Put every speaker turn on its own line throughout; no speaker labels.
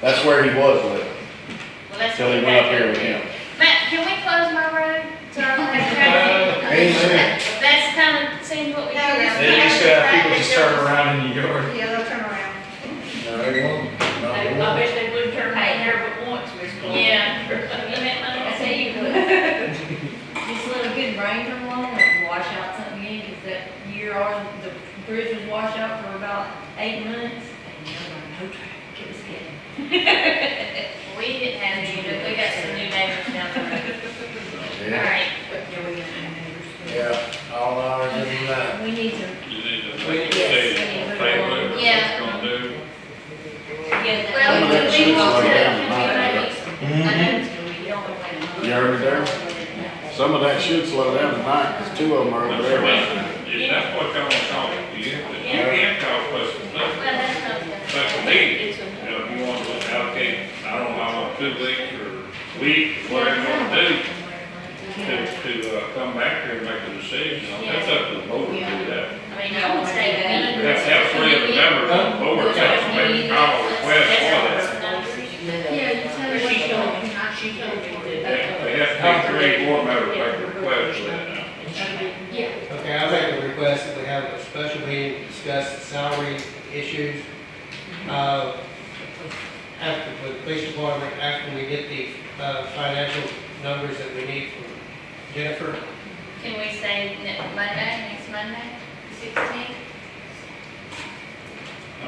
That's where he was living,
Well, that's
till he went up here with him.
Matt, can we close my road to our last traffic? I mean,
Amen.
That's kind of seems what we do.
No,
around
it's not.
They used to have people just turn
here.
around in your yard.
Yeah, they'll turn around.
I I wish they would turn my hair but once, Miss Chloe.
Yeah. You meant money?
I say you could. Just let a good rain come along and wash out something in, because that year our, the bridge was washed out for about eight months, and there were no traffic, it was good.
We didn't have any, but we got some new neighbors down there. All right.
But, yeah, we didn't have neighbors.
Yeah, all ours in line.
We need to,
You need to
We need
make a
to-
decision, table it, what
Yeah.
it's gonna do.
yeah,
Well, we can
that,
leave all
Yeah.
that.
Mm-hmm.
Mm-hmm.
You heard me there? Some of that should slow down tonight, cause two of them are over
That's
there.
right. Yeah, that's what y'all wanna call it, you have to, you
Yeah.
can't call it special
Well,
meeting.
that's not good.
Special meeting, you know, if you want to allocate, I don't know, how long, two weeks or week, whatever you want to do, to, to, uh, come back here and make a decision, on that's up to the board to do that.
I mean, I would say that.
You have to have three of the members on the board, that's to make a call or request for that.
Yeah, you tell her she told me, she told me
They
that.
they have to be three board members make a request for that now.
Yeah.
Okay, I make a request that we have a special meeting to discuss salary issues. uh, After, with the police department, after we get the uh, financial numbers that we need from Jennifer.
Can we say ne- Monday, next Monday, sixteen?
I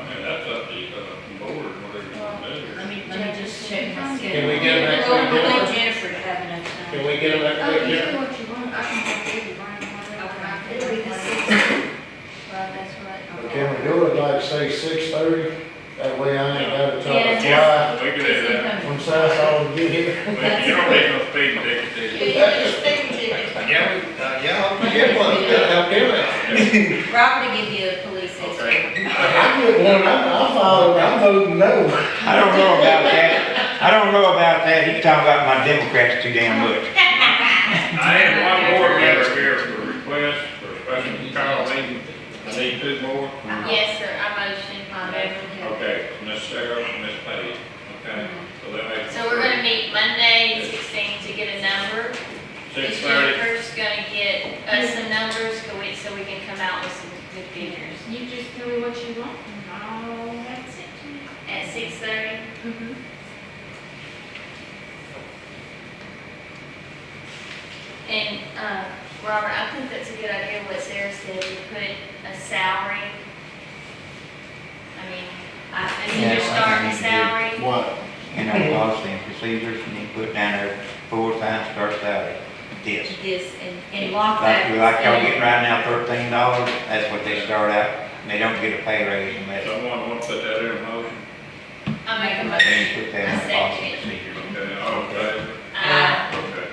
mean, that's up to, uh, board, whatever you want to do.
Let me, let me just check my schedule.
Can we get back to
Well,
Jennifer?
let Jennifer have enough time.
Can we get them
Oh,
back
you
there?
do what you want, I can have it, Brian,
It'll
whatever.
be the Well, that's
But
what.
Can we do it like say six thirty? That way I ain't gotta try to fly
Yeah, we could do that.
from Southall to get here.
But you don't need no speed ticket, do you?
Yeah, we- uh, yeah,
We Get one, that'll help them out.
Robert will give you a police escort.
Okay.
I get one, I'm, I'm following, I'm voting no.
I don't know about that. I don't know about that. He's talking about my Democrats too damn much.
I have one board member here for request for special call meeting. I need two more.
Yes, sir, I motion, my
Um,
motion.
Okay, Miss Sarah, Miss Peggy, okay? So that makes.
So we're gonna meet Monday, sixteen, to get a number.
Six
Miss
thirty.
Jennifer's gonna get us some numbers, so we, so we can come out with some good figures.
You just tell me what you want, and I'll have it. sent to you.
At six thirty? And, uh, Robert, I think that's a good idea what Sarah said, to put a salary. I mean, I, I mean, you're
Yes, I
starting salary.
think we
What?
In our policy and procedures, and he put down there four times start salary. This.
This, and, and lock
Like,
that.
like y'all getting right now thirteen dollars, that's what they start out. They don't get a pay raise unless
Someone want to put that in a motion?
I make a
they
motion.
put that in the policy and procedures.
Okay, all in favor?
Uh,
Okay.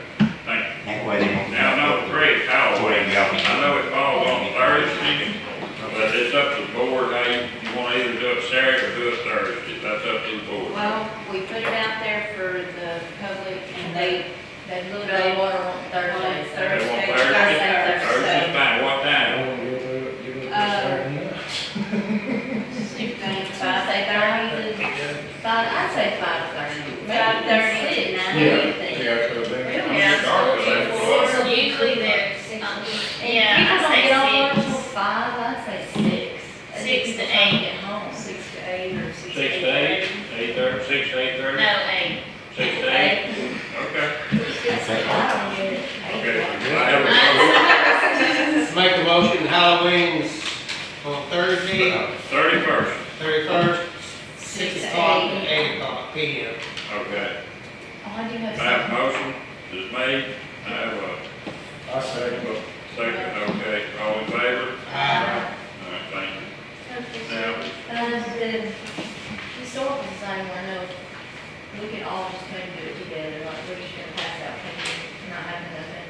Thank
That way they
you.
won't.
Now, number three, power.
Whatever y'all can do.
I know it falls on Thursday, but it's up to the board, how you, you wanna either do it Saturday or do it Thursday, that's up to the board.
Well, we put it out there for the public and they, they looked
They
over
water on Thursday,
on Thursday,
Thursday.
They want Thursday, Thursday's
Thursday,
fine, what
I
time?
won't give it, give it
Uh,
to
so. If they,
So I say thirty to, five, I'd say five thirty. Five thirty to nine,
something.
anything.
Yeah, so then-
yeah,
dark, but that's what-
so usually there's, um,
People don't get
yeah,
on
I'd
work till
say
five, I'd say six. I think
Six to
people try
eight.
Get home,
six to eight or six to
Six
eight.
to eight, eight thirty, six to eight
six,
thirty,
no, eight.
six to eight, okay.
I don't get it.
Okay.
Uh, Make a motion, Halloween's on Thursday,
Thirty-first,
thirty-first,
Six
six
to
o'clock
eight.
to eight o'clock P M.
okay.
Oh, I do
I
have
have a
some.
motion, is made, I have a
I say,
second, okay, all in favor?
Uh,
All right, thank you.
Uh,
Now,
the historical design, I know, we can all just kind of do it together, like, we're just gonna pass out, and not have nothing.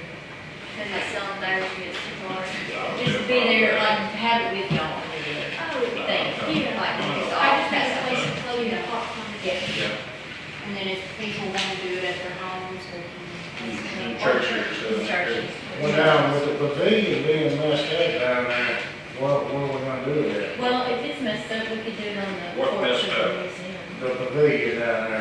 Cause it's on Thursday, it's tomorrow.
I'll do
Just
it.
be there, like, have it with y'all, and do it.
Oh,
Thing, like, just all
I just
pass
need a
out.
place to plug in the popcorn.
Yeah,
Yeah,
And then if people wanna do it at their homes, they can.
in church here, so.
churches.
well, now, with the pavilion being messed up down there, what, what are we gonna do with that?
Well, if it's messed up, we could do it on the
What
porch
messed
of the museum.
the pavilion down there.